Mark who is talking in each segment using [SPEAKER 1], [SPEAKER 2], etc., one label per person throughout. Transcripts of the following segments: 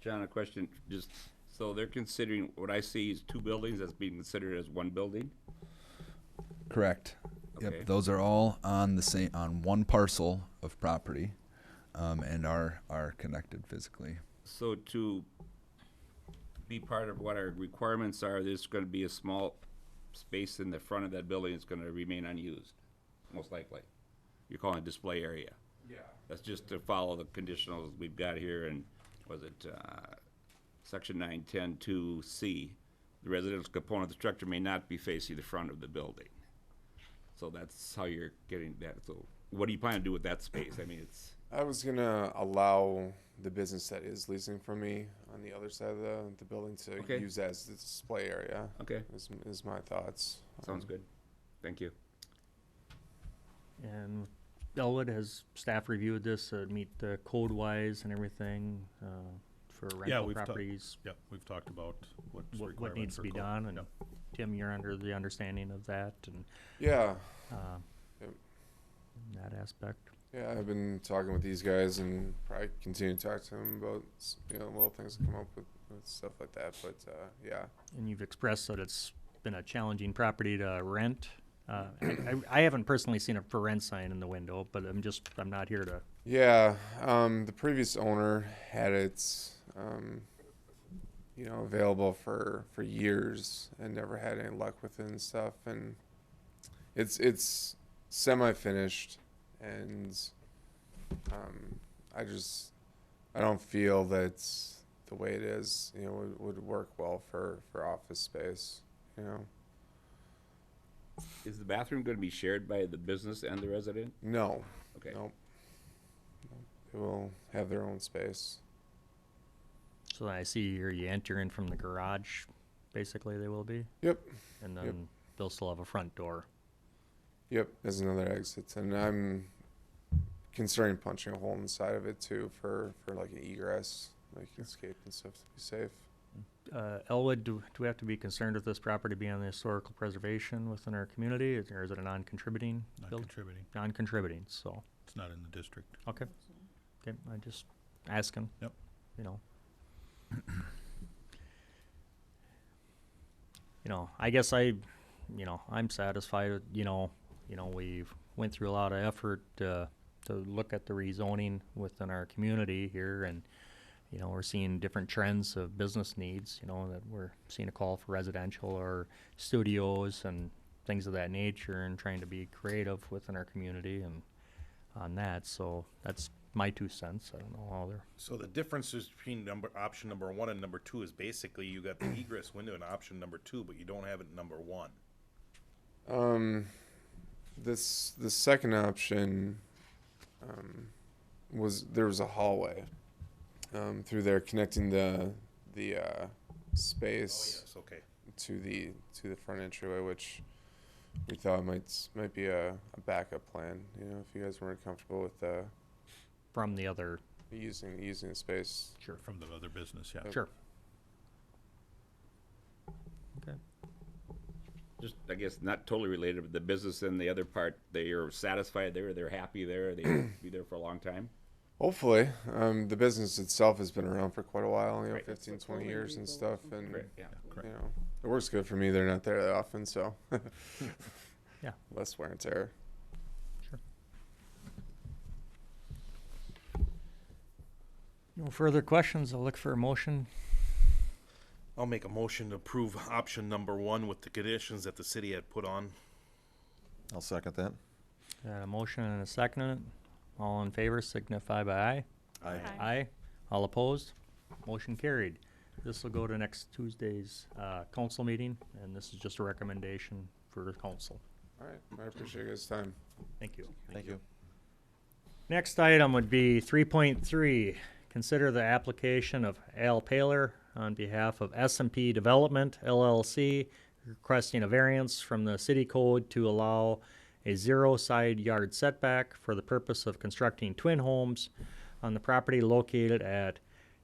[SPEAKER 1] John, a question, just, so they're considering, what I see is two buildings that's being considered as one building?
[SPEAKER 2] Correct.
[SPEAKER 1] Okay.
[SPEAKER 2] Yep, those are all on the same, on one parcel of property, um, and are, are connected physically.
[SPEAKER 1] So to be part of what our requirements are, there's gonna be a small space in the front of that building that's gonna remain unused, most likely. You're calling it display area. Yeah. That's just to follow the conditionals we've got here in, was it, uh, section nine, ten, two, C. The residential component of the structure may not be facing the front of the building. So that's how you're getting that, so what do you plan to do with that space? I mean, it's,
[SPEAKER 3] I was gonna allow the business that is leasing from me on the other side of the, the building to
[SPEAKER 1] Okay.
[SPEAKER 3] use as the display area.
[SPEAKER 1] okay,
[SPEAKER 3] Is, is my thoughts.
[SPEAKER 1] sounds good. Thank you.
[SPEAKER 4] And Elwood has staff reviewed this, so it'd meet the code wise and everything, uh, for rental
[SPEAKER 5] we've talked-
[SPEAKER 4] properties,
[SPEAKER 5] Yep, we've talked about what's
[SPEAKER 4] what,
[SPEAKER 5] required.
[SPEAKER 4] what needs to be done, and Tim, you're under the understanding of that and,
[SPEAKER 3] Yeah,
[SPEAKER 4] uh,
[SPEAKER 3] Yep.
[SPEAKER 4] that aspect.
[SPEAKER 3] yeah. I've been talking with these guys and probably continue to talk to them about s- you know little things that come up with, with stuff like that. But uh, yeah,
[SPEAKER 4] And you've expressed that it's been a challenging property to rent. Uh, I, I- I haven't personally seen a for rent sign in the window, but I'm just, I'm not here to,
[SPEAKER 3] Yeah, um, the previous owner had it, um, you know, available for for years and never had any luck with it and stuff. And it's it's semi-finished, and um, I just I don't feel that the way it is, you know, would, would work well for for office space. You know,
[SPEAKER 1] Is the bathroom gonna be shared by the business and the resident?
[SPEAKER 3] no,
[SPEAKER 1] Okay,
[SPEAKER 3] no, they will have their own space.
[SPEAKER 4] so I see here you enter in from the garage, basically they will be,
[SPEAKER 3] Yep.
[SPEAKER 4] and
[SPEAKER 3] Yep.
[SPEAKER 4] then they'll still have a front door.
[SPEAKER 3] Yep, there's another exit, and I'm considering punching a hole in the side of it too for for like an egress, like escape and stuff to be safe.
[SPEAKER 4] Uh, Elwood, do, do we have to be concerned with this property being on the historical preservation within our community, is- or is it a non-contributing
[SPEAKER 5] Not
[SPEAKER 4] building?
[SPEAKER 5] contributing.
[SPEAKER 4] Non-contributing, so,
[SPEAKER 5] It's not in the district.
[SPEAKER 4] okay, okay, I just asking.
[SPEAKER 5] Yep.
[SPEAKER 4] You know. You know, I guess I, you know, I'm satisfied, with, you know, you know, we've went through a lot of effort, uh, to look at the rezoning within our community here and, you know, we're seeing different trends of business needs, you know, that we're seeing a call for residential or studios and things of that nature and trying to be creative within our community and on that. So that's my two cents. I don't know how they're
[SPEAKER 6] So the differences between number, option number one and number two is basically you got the egress window in option number two, but you don't have it in number one.
[SPEAKER 3] Um, this the second option um, was there was a hallway um, through there connecting the the uh, space
[SPEAKER 6] Oh, Yes, okay.
[SPEAKER 3] to the to the front entryway, which we thought might might be a, a backup plan. You know, if you guys weren't comfortable with uh,
[SPEAKER 4] from the other.
[SPEAKER 3] using using the space
[SPEAKER 4] Sure.
[SPEAKER 5] From the other business, yeah.
[SPEAKER 4] Sure.
[SPEAKER 1] just, I guess, not totally related, but the business and the other part, they are satisfied there, they're happy there, they be there for a long time?
[SPEAKER 3] Hopefully, um, the business itself has been around for quite a while, you know,
[SPEAKER 1] Right.
[SPEAKER 3] fifteen,
[SPEAKER 7] That's
[SPEAKER 3] twenty 15, 20
[SPEAKER 7] what
[SPEAKER 3] years and
[SPEAKER 7] Golden
[SPEAKER 3] stuff.
[SPEAKER 7] Eagle
[SPEAKER 3] And,
[SPEAKER 1] Correct, yeah.
[SPEAKER 3] you know, it works good for me. They're not there that often, so.
[SPEAKER 4] Yeah.
[SPEAKER 3] Less wear and tear.
[SPEAKER 4] No further questions. I'll look for a motion.
[SPEAKER 6] I'll make a motion to approve option number one with the conditions that the city had put on.
[SPEAKER 8] I'll second that.
[SPEAKER 4] Got a motion and a second. on it. All in favor signify by aye.
[SPEAKER 8] Aye.
[SPEAKER 7] Aye.
[SPEAKER 4] Aye. All opposed? Motion carried. This will go to next Tuesday's uh, council meeting, and this is just a recommendation for the council.
[SPEAKER 3] All right. I appreciate you guys' time.
[SPEAKER 4] Thank you.
[SPEAKER 8] Thank you.
[SPEAKER 4] Next item would be 3.3. Consider the application of Al Paler on behalf of s and p Development LLC requesting a variance from the city code to allow a zero side yard setback for the purpose of constructing twin homes on the property located at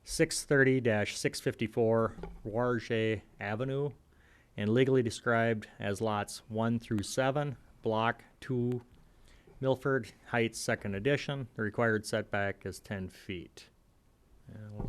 [SPEAKER 4] 630-654 Warje Avenue and legally described as lots 1 through 7, Block 2, Milford Heights Second Edition. The required setback is ten feet. And we'll